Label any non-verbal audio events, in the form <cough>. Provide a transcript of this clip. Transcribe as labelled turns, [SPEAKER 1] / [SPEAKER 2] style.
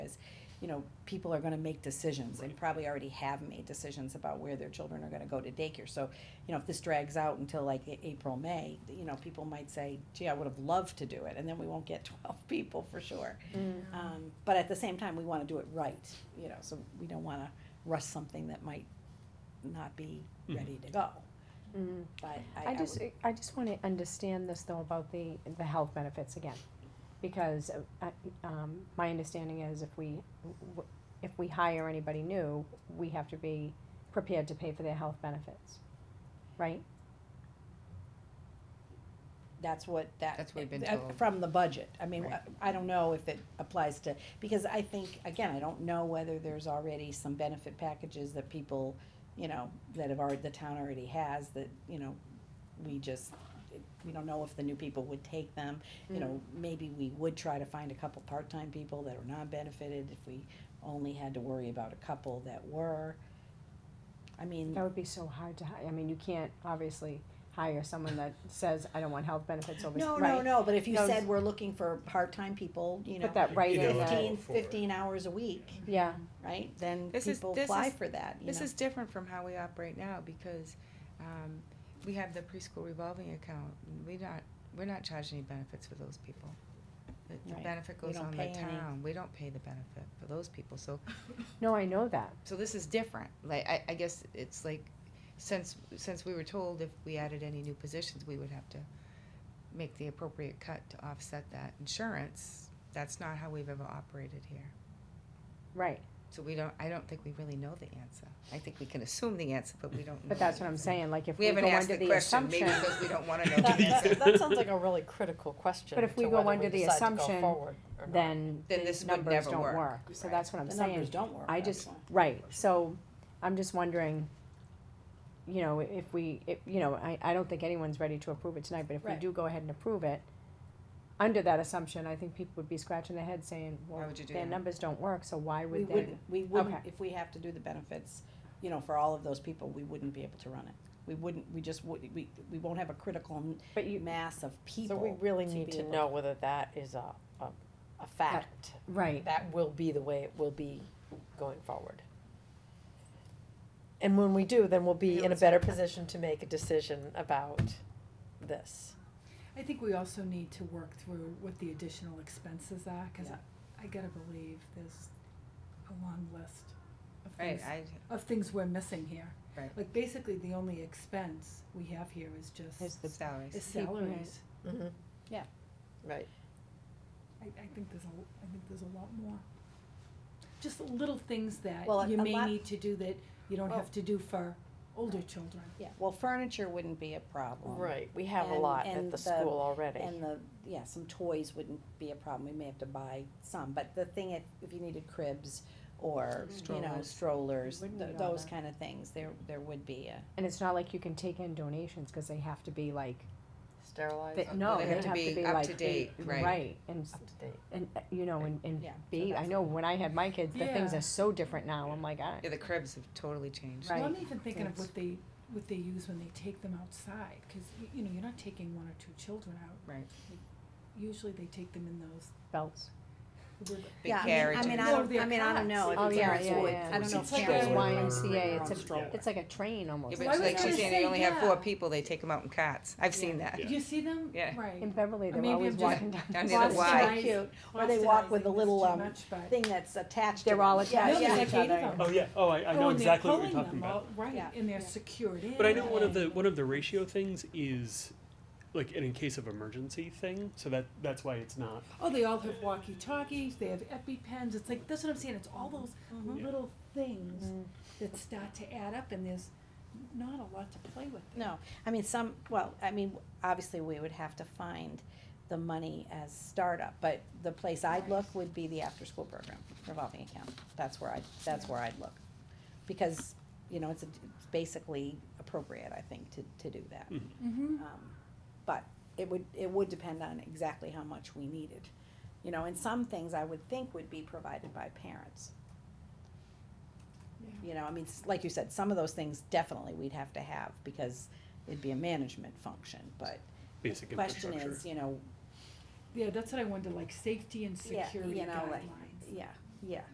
[SPEAKER 1] you know, people are gonna make decisions and probably already have made decisions about where their children are gonna go to daycare. So, you know, if this drags out until like A- April, May, you know, people might say, gee, I would have loved to do it, and then we won't get <laughs> twelve people for sure. Um, but at the same time, we wanna do it right, you know, so we don't wanna rush something that might not be ready to go, but Mm-hmm. I, I
[SPEAKER 2] I just,
[SPEAKER 1] would-
[SPEAKER 2] I just wanna understand this though about the, the health benefits again. Because, uh, I- um, my understanding is if we, w- if we hire anybody new, we have to be prepared to pay for their health benefits, right?
[SPEAKER 1] that's what that.
[SPEAKER 3] That's what we've been
[SPEAKER 1] uh,
[SPEAKER 3] told.
[SPEAKER 1] From the budget, I mean,
[SPEAKER 3] Right.
[SPEAKER 1] I I don't know if it applies to, because I think, again, I don't know whether there's already some benefit packages that people, you know, that have already, the town already has, that, you know, we just, we don't know if the new people would take them, you know,
[SPEAKER 3] Mm-hmm.
[SPEAKER 1] maybe we would try to find a couple part-time people that are non-benefited, if we only had to worry about a couple that were. I mean,
[SPEAKER 2] That would be so hard to hire, I mean, you can't obviously hire someone that says, I don't want health benefits over,
[SPEAKER 1] no, no,
[SPEAKER 2] right?
[SPEAKER 1] no, but if you
[SPEAKER 2] No,
[SPEAKER 1] said we're looking for part-time people, you know.
[SPEAKER 2] Put that right
[SPEAKER 4] You
[SPEAKER 2] in
[SPEAKER 4] know,
[SPEAKER 2] that,
[SPEAKER 1] fifteen,
[SPEAKER 4] for it.
[SPEAKER 1] fifteen hours a week,
[SPEAKER 2] yeah,
[SPEAKER 1] right, then
[SPEAKER 5] This is-
[SPEAKER 1] people
[SPEAKER 5] this
[SPEAKER 1] apply
[SPEAKER 5] is-
[SPEAKER 1] for that, you know.
[SPEAKER 5] This is different from how we operate now because um, we have the preschool revolving account. We not, we're not charging any benefits for those people. The- The
[SPEAKER 1] Right.
[SPEAKER 5] benefit
[SPEAKER 1] We
[SPEAKER 5] goes
[SPEAKER 1] don't
[SPEAKER 5] on
[SPEAKER 1] pay
[SPEAKER 5] the
[SPEAKER 1] any.
[SPEAKER 5] town. We don't pay the benefit for those people. So,
[SPEAKER 2] no, I know that,
[SPEAKER 5] so this is different. Like, I, I guess it's like, since, since we were told if we added any new positions, we would have to make the appropriate cut to offset that insurance. That's not how we've ever operated here.
[SPEAKER 2] right.
[SPEAKER 5] So we don't, I don't think we really know the answer. I think we can assume the answer, but we don't know.
[SPEAKER 2] But that's what I'm saying, like if
[SPEAKER 5] Mm-hmm. We
[SPEAKER 2] we
[SPEAKER 5] haven't
[SPEAKER 2] go
[SPEAKER 5] asked
[SPEAKER 2] under
[SPEAKER 5] the
[SPEAKER 2] the
[SPEAKER 5] question, maybe
[SPEAKER 2] assumption,
[SPEAKER 5] because we don't wanna know
[SPEAKER 2] <laughs>
[SPEAKER 4] That-
[SPEAKER 5] the
[SPEAKER 4] that-
[SPEAKER 5] answer.
[SPEAKER 4] that sounds like a really critical question.
[SPEAKER 2] But if we
[SPEAKER 4] to
[SPEAKER 2] go
[SPEAKER 4] whether
[SPEAKER 2] under the
[SPEAKER 4] decide to go
[SPEAKER 2] assumption,
[SPEAKER 4] forward or not.
[SPEAKER 2] then
[SPEAKER 5] Then
[SPEAKER 2] the
[SPEAKER 5] this would
[SPEAKER 2] numbers
[SPEAKER 5] never
[SPEAKER 2] don't
[SPEAKER 5] work.
[SPEAKER 2] work. So
[SPEAKER 5] Right.
[SPEAKER 2] that's what I'm
[SPEAKER 1] The numbers
[SPEAKER 2] saying.
[SPEAKER 1] don't work.
[SPEAKER 2] I
[SPEAKER 1] that's
[SPEAKER 2] just,
[SPEAKER 1] why.
[SPEAKER 2] right, so I'm just wondering, you know, if we, if, you know, I, I don't think anyone's ready to approve it tonight, but if we
[SPEAKER 1] Right.
[SPEAKER 2] do go ahead and approve it, under that assumption, I think people would be scratching their head saying, well,
[SPEAKER 5] would you do
[SPEAKER 2] their
[SPEAKER 5] that?
[SPEAKER 2] numbers don't work, so why
[SPEAKER 1] We
[SPEAKER 2] would they?
[SPEAKER 1] wouldn't, we wouldn't,
[SPEAKER 2] Okay.
[SPEAKER 1] if we have to do the benefits, you know, for all of those people, we wouldn't be able to run it. We wouldn't, we just would, we, we won't have a critical m-
[SPEAKER 2] But you,
[SPEAKER 1] mass of
[SPEAKER 4] So
[SPEAKER 1] people.
[SPEAKER 4] we really
[SPEAKER 1] to
[SPEAKER 4] need
[SPEAKER 1] be
[SPEAKER 4] to
[SPEAKER 1] able-
[SPEAKER 4] know whether that is a, a, a fact,
[SPEAKER 2] right,
[SPEAKER 4] that will be the way it will be going forward. And when we do, then we'll be in a better position to make a decision about this.
[SPEAKER 6] I think we also need to work through what the additional expenses are, cause
[SPEAKER 1] Yeah.
[SPEAKER 6] I, I gotta believe there's a long list of
[SPEAKER 5] Right,
[SPEAKER 6] things,
[SPEAKER 5] I,
[SPEAKER 6] of things we're missing here.
[SPEAKER 5] Right.
[SPEAKER 6] Like basically, the only expense we have here is
[SPEAKER 2] Is
[SPEAKER 6] just,
[SPEAKER 2] the-
[SPEAKER 5] salaries.
[SPEAKER 6] is salaries.
[SPEAKER 1] Yeah.
[SPEAKER 4] Right.
[SPEAKER 6] I, I think there's a, I think there's a lot more. Just little things that
[SPEAKER 1] Well, a-
[SPEAKER 6] you
[SPEAKER 1] a
[SPEAKER 6] may
[SPEAKER 1] lot-
[SPEAKER 6] need to do that you don't
[SPEAKER 1] Well-
[SPEAKER 6] have to do for older children.
[SPEAKER 1] Yeah, well, furniture wouldn't be a problem.
[SPEAKER 4] Right, we have a
[SPEAKER 1] And-
[SPEAKER 4] lot
[SPEAKER 1] and
[SPEAKER 4] at
[SPEAKER 1] the-
[SPEAKER 4] the school already.
[SPEAKER 1] And the, yeah, some toys wouldn't be a problem, we may have to buy some, but the thing, if, if you needed cribs or, you know,
[SPEAKER 5] Strollers.
[SPEAKER 1] strollers,
[SPEAKER 2] Wouldn't
[SPEAKER 1] th-
[SPEAKER 2] need all
[SPEAKER 1] those
[SPEAKER 2] that.
[SPEAKER 1] kind of things, there, there would be a.
[SPEAKER 2] and it's not like you can take in donations, cause they have to be like,
[SPEAKER 4] Sterilized,
[SPEAKER 2] they,
[SPEAKER 5] Uh,
[SPEAKER 2] no,
[SPEAKER 5] they
[SPEAKER 2] they
[SPEAKER 5] have to
[SPEAKER 2] have
[SPEAKER 5] be
[SPEAKER 2] to be
[SPEAKER 5] up
[SPEAKER 2] like,
[SPEAKER 5] to date, right.
[SPEAKER 2] right, and s-
[SPEAKER 4] up to date.
[SPEAKER 2] And, uh, you know, and, and
[SPEAKER 1] Yeah, so
[SPEAKER 2] be, I
[SPEAKER 1] that's-
[SPEAKER 2] know when I had my kids, the things
[SPEAKER 6] Yeah.
[SPEAKER 2] are so different now, I'm like, I,
[SPEAKER 5] Yeah, the cribs have totally changed.
[SPEAKER 2] Right.
[SPEAKER 6] Well, I'm even thinking of
[SPEAKER 2] Things.
[SPEAKER 6] what they, what they use when they take them outside, cause y- you know, you're not taking one or two children out.
[SPEAKER 5] Right.
[SPEAKER 6] Usually they take them in those.
[SPEAKER 2] belts.
[SPEAKER 5] Big
[SPEAKER 1] Yeah, I mean-
[SPEAKER 5] carriages.
[SPEAKER 1] I mean, I
[SPEAKER 6] No,
[SPEAKER 1] don't,
[SPEAKER 6] they're
[SPEAKER 1] I mean, I don't
[SPEAKER 6] cots.
[SPEAKER 1] know if
[SPEAKER 2] Oh, yeah,
[SPEAKER 1] parents
[SPEAKER 2] yeah,
[SPEAKER 1] would,
[SPEAKER 2] yeah.
[SPEAKER 1] I don't know
[SPEAKER 6] It's
[SPEAKER 1] if
[SPEAKER 6] like
[SPEAKER 1] parents
[SPEAKER 6] a-
[SPEAKER 1] would.
[SPEAKER 2] YMCA, it's
[SPEAKER 1] Or
[SPEAKER 2] a,
[SPEAKER 1] stroller.
[SPEAKER 2] it's like a train
[SPEAKER 5] Yeah,
[SPEAKER 2] almost.
[SPEAKER 5] but
[SPEAKER 6] I
[SPEAKER 5] it's
[SPEAKER 6] was
[SPEAKER 5] like
[SPEAKER 6] gonna
[SPEAKER 5] she's saying, they
[SPEAKER 6] say,
[SPEAKER 5] only have four
[SPEAKER 6] yeah.
[SPEAKER 5] people, they take them out in cots. I've seen that.
[SPEAKER 6] You see them?
[SPEAKER 5] Yeah.
[SPEAKER 6] Right.
[SPEAKER 2] In Beverly, they were
[SPEAKER 6] Maybe
[SPEAKER 2] always
[SPEAKER 6] I'm just-
[SPEAKER 2] walking down.
[SPEAKER 5] Down
[SPEAKER 2] the
[SPEAKER 5] near the
[SPEAKER 2] street.
[SPEAKER 5] Y.
[SPEAKER 1] So cute, or they walk with a
[SPEAKER 6] Bostonizing is
[SPEAKER 1] little,
[SPEAKER 6] too
[SPEAKER 1] um,
[SPEAKER 6] much, but-
[SPEAKER 1] thing that's attached. to
[SPEAKER 2] They're
[SPEAKER 1] them.
[SPEAKER 2] all
[SPEAKER 1] Yeah,
[SPEAKER 2] attached
[SPEAKER 1] yeah.
[SPEAKER 2] to each
[SPEAKER 6] Dedicated
[SPEAKER 2] other.
[SPEAKER 6] them.
[SPEAKER 7] Oh yeah. Oh, I, I know
[SPEAKER 6] Oh, and they're
[SPEAKER 7] exactly what you're
[SPEAKER 6] pulling
[SPEAKER 7] talking
[SPEAKER 6] them
[SPEAKER 7] about.
[SPEAKER 6] out, Right,
[SPEAKER 1] Yeah.
[SPEAKER 6] and they're
[SPEAKER 1] Yeah.
[SPEAKER 6] secured in.
[SPEAKER 7] But I know one of
[SPEAKER 6] and-
[SPEAKER 7] the one of the ratio things is like an in case of emergency thing. So that that's why it's not.
[SPEAKER 6] Oh, they all have walkie-talkies, they have EpiPens, it's like, that's what I'm saying, it's all those
[SPEAKER 1] Mm-hmm.
[SPEAKER 7] Yeah.
[SPEAKER 6] little things that start to add up, and there's not a lot to play with. there.
[SPEAKER 1] No, I mean, some, well, I mean, obviously, we would have to find the money as startup, but the place I'd look would be the after-school program revolving account. That's where I, that's where I'd look. Because, you know, it's, a- it's basically appropriate, I think, to, to do that.
[SPEAKER 7] Mhm.
[SPEAKER 6] Mm-hmm.
[SPEAKER 1] Um, But it would, it would depend on exactly how much we needed. You know, and some things I would think would be provided by parents. You know, I mean, s- like you said, some of those things definitely we'd have to have because it'd be a management function, but
[SPEAKER 7] Basic
[SPEAKER 1] the question
[SPEAKER 7] infrastructure.
[SPEAKER 1] is, you know,
[SPEAKER 6] Yeah, that's what I wonder, like, safety and
[SPEAKER 1] Yeah,
[SPEAKER 6] security
[SPEAKER 1] you know,
[SPEAKER 6] guidelines.
[SPEAKER 1] like- yeah, yeah.